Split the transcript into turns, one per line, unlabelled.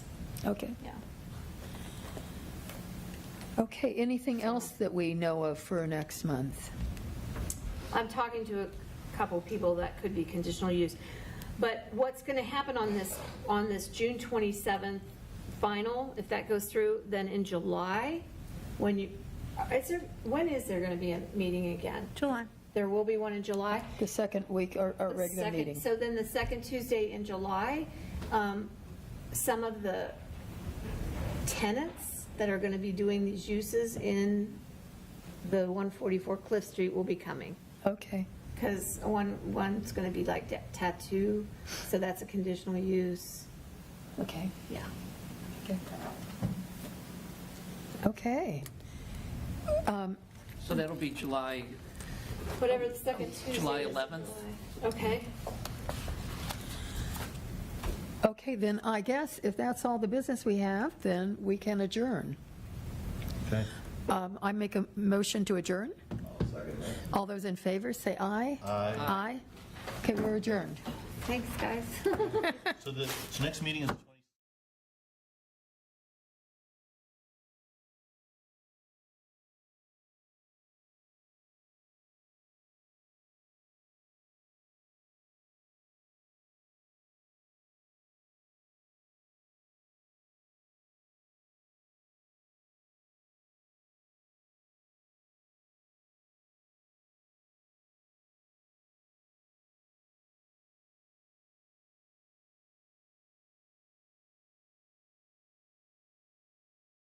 Okay.
yeah.
Okay, anything else that we know of for next month?
I'm talking to a couple people that could be conditional use. But what's going to happen on this, on this June 27th final, if that goes through, then in July, when you, is there, when is there going to be a meeting again?
July.
There will be one in July?
The second week, our, our
The
regular
second-
meeting?
So then the second Tuesday in July, um, some of the tenants that are going to be doing these uses in the 144 Cliff Street will be coming.
Okay,
Because one, one's going to be like ta- tattoo, so that's a conditional use.
okay,
Yeah.
okay. Okay. Um,
So that'll be July,
Whatever the second Tuesday.
July
is in
11th.
July. Okay.
Okay, then I guess if that's all the business we have, then we can adjourn.
Okay.
Um, I make a motion to adjourn? All those in favor, say aye.
Aye.
Aye. Okay, we're adjourned.
Thanks, guys.
So the, so next meeting is the